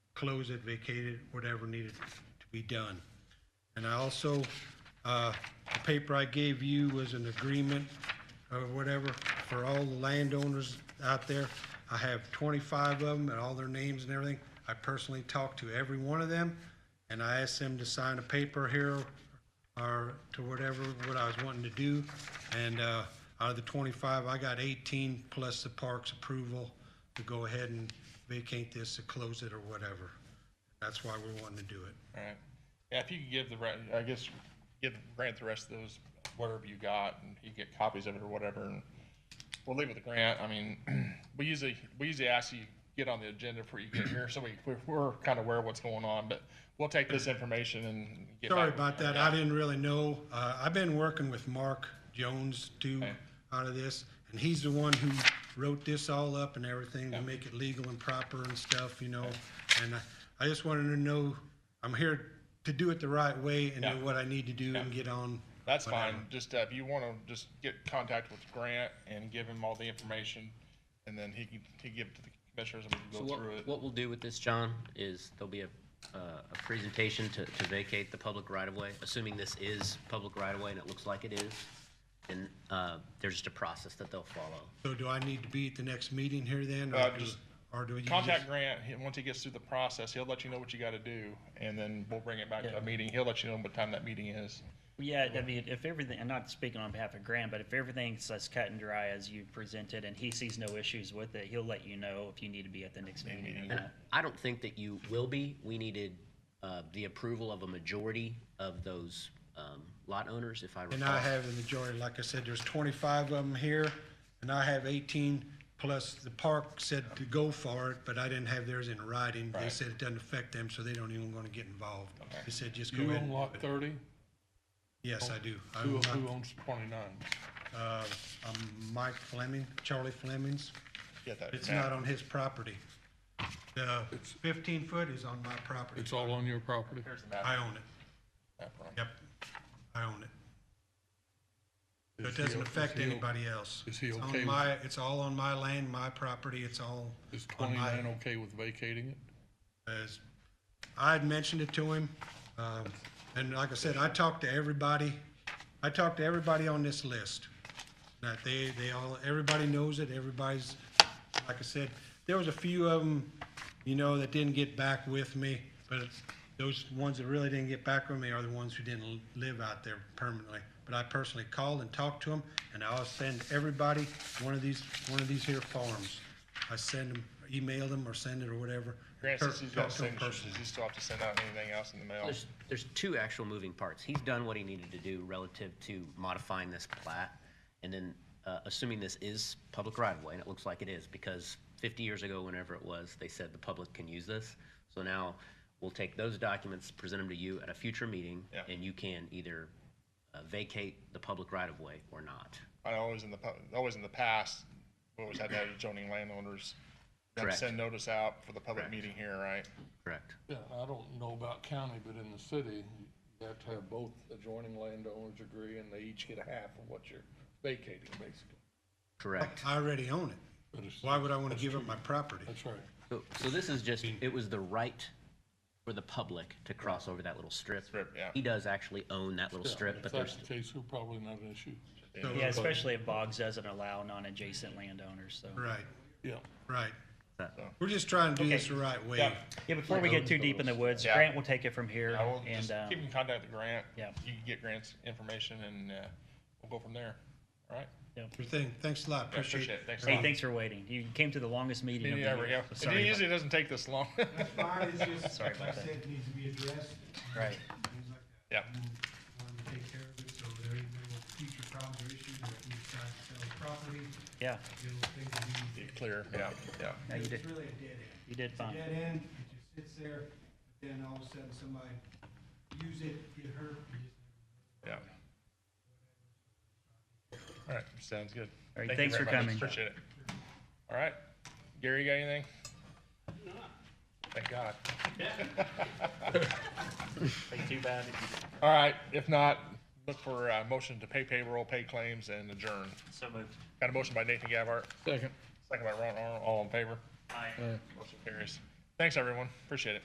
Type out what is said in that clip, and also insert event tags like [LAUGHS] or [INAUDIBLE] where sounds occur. close it, vacate it, whatever needed to be done. And I also, uh, the paper I gave you was an agreement or whatever for all the landowners out there. I have 25 of them and all their names and everything. I personally talked to every one of them, and I asked them to sign a paper here or to whatever, what I was wanting to do. And uh, out of the 25, I got 18 plus the park's approval to go ahead and vacate this, to close it or whatever. That's why we're wanting to do it. All right. Yeah, if you could give the, re- I guess, give Grant the rest of those, whatever you got, and he can get copies of it or whatever, and we'll leave it with Grant. I mean, [CLEARS THROAT] we usually, we usually ask you get on the agenda before you get here, so we, we're, we're kind of aware of what's going on, but we'll take this information and get back. Sorry with about you. that. I didn't really know. Uh, I've been working with Mark Jones too Okay. out of this, and he's the one who wrote this all up and everything to make it legal and proper and stuff, you know. And I, I just wanted to know, I'm here to do it the right way and Yeah. do what I need to do and get on. That's whatever. fine. Just, uh, if you want to just get contact with Grant and give him all the information, and then he can, he can give it to the commissioners and we So can go what, through it. what we'll do with this, John, is there'll be a, uh, a presentation to, to vacate the public right-of-way, assuming this is public right-of-way and it looks like it is. And, uh, there's just a process that they'll follow. So do I need to be at the next meeting here then? or Uh, do- just Or do you just? Contact Grant, he- once he gets through the process, he'll let you know what you gotta do, and then we'll bring it back to a meeting, he'll let you know what time that meeting is. Yeah, I mean, if everything, and not speaking on behalf of Graham, but if everything's as cut and dry as you presented and he sees no issues with it, he'll let you know if you need to be at the next meeting or And not. I don't think that you will be. We needed, uh, the approval of a majority of those, um, lot owners, if I recall. And I have the majority, like I said, there's twenty-five of them here, and I have eighteen, plus the park said to go for it, but I didn't have theirs in writing. They Right. said it doesn't affect them, so they don't even wanna get involved. Okay. They said just go You ahead. own and lot do it. thirty? Yes, I do. I Who, own lot- who owns twenty-nine? Uh, I'm Mike Fleming, Charlie Fleming's. Get that. It's map. not on his property. The fifteen foot is on my property. It's all on your property? Here's the map. I own it. Map wrong. Yep. I own it. So Is It he doesn't o- is affect he o- anybody else. is he It's on okay with- my- It's all on my land, my property, it's all Is on twenty-nine my, uh, okay with vacating it? as, I had mentioned it to him, um, and like I said, I talked to everybody, I talked to everybody on this list. That they, they all, everybody knows it, everybody's, like I said, there was a few of them, you know, that didn't get back with me, but those ones that really didn't get back with me are the ones who didn't live out there permanently. But I personally called and talked to them, and I'll send everybody one of these, one of these here forms. I send them, email them or send it or whatever. Grant says he's Talk got to 'em signatures, personally. does he still have to send out anything else in the mail? There's, there's two actual moving parts. He's done what he needed to do relative to modifying this plat, and then, uh, assuming this is public right-of-way, and it looks like it is, because fifty years ago, whenever it was, they said the public can use this. So now, we'll take those documents, present them to you at a future meeting, Yeah. and you can either uh, vacate the public right-of-way or not. I know always in the, pu- always in the past, we always had that adjoining landowners. They had to Correct. Send notice out for the public Correct. meeting here, right? Correct. Yeah, I don't know about county, but in the city, you have to have both adjoining landowners agree and they each get a half of what you're vacating, basically. Correct. I already own it. But it's- Why would I want to give up my property? That's right. So, so this is just, it was the right for the public to cross over that little strip. Strip, yeah. He does actually own that little Yeah, strip, but If that's there's, the case, we're probably not an issue. Yeah, especially if Boggs doesn't allow non-adjacent landowners, so. Right, Yeah. right. That- We're just trying to do Okay. this the right way. Yeah, Yeah, before we get too deep in the woods, Yeah. Grant will take it from here I will and, just um, keep in contact with Grant. yeah. You can get Grant's information and, uh, we'll go from there, all right? Sure thing. Thanks a lot, Yeah, appreciate it. Thanks. a hey, lot. [LAUGHS] thanks for waiting. You came to the longest meeting of the Yeah, we year. go. so It Sorry usually about doesn't take this long. Mine is [LAUGHS] just, Sorry like about I that. said, it needs to be addressed, that. Right. things like that. Yeah. We want to take care of it, so there ain't no future problems or issues, or if we decide to sell the property, Yeah, you know, things will be. Get clear, yeah, yeah. no, you did, It's really a dead end. you did It's a fine. dead end, it just sits there, but then all of a sudden somebody use it, get hurt, you just Yeah. All right, sounds good. right, Thank you thanks very for much. coming. Appreciate it. All right, Gary, you got anything? Thank God. [LAUGHS] All right, if not, look for a motion to pay payroll, pay claims, and adjourn. So moved. Got a motion by Nathan Gavhart, Second. second by Ron Arnold, all in favor? Aye. Motion carries. Thanks, everyone, appreciate it.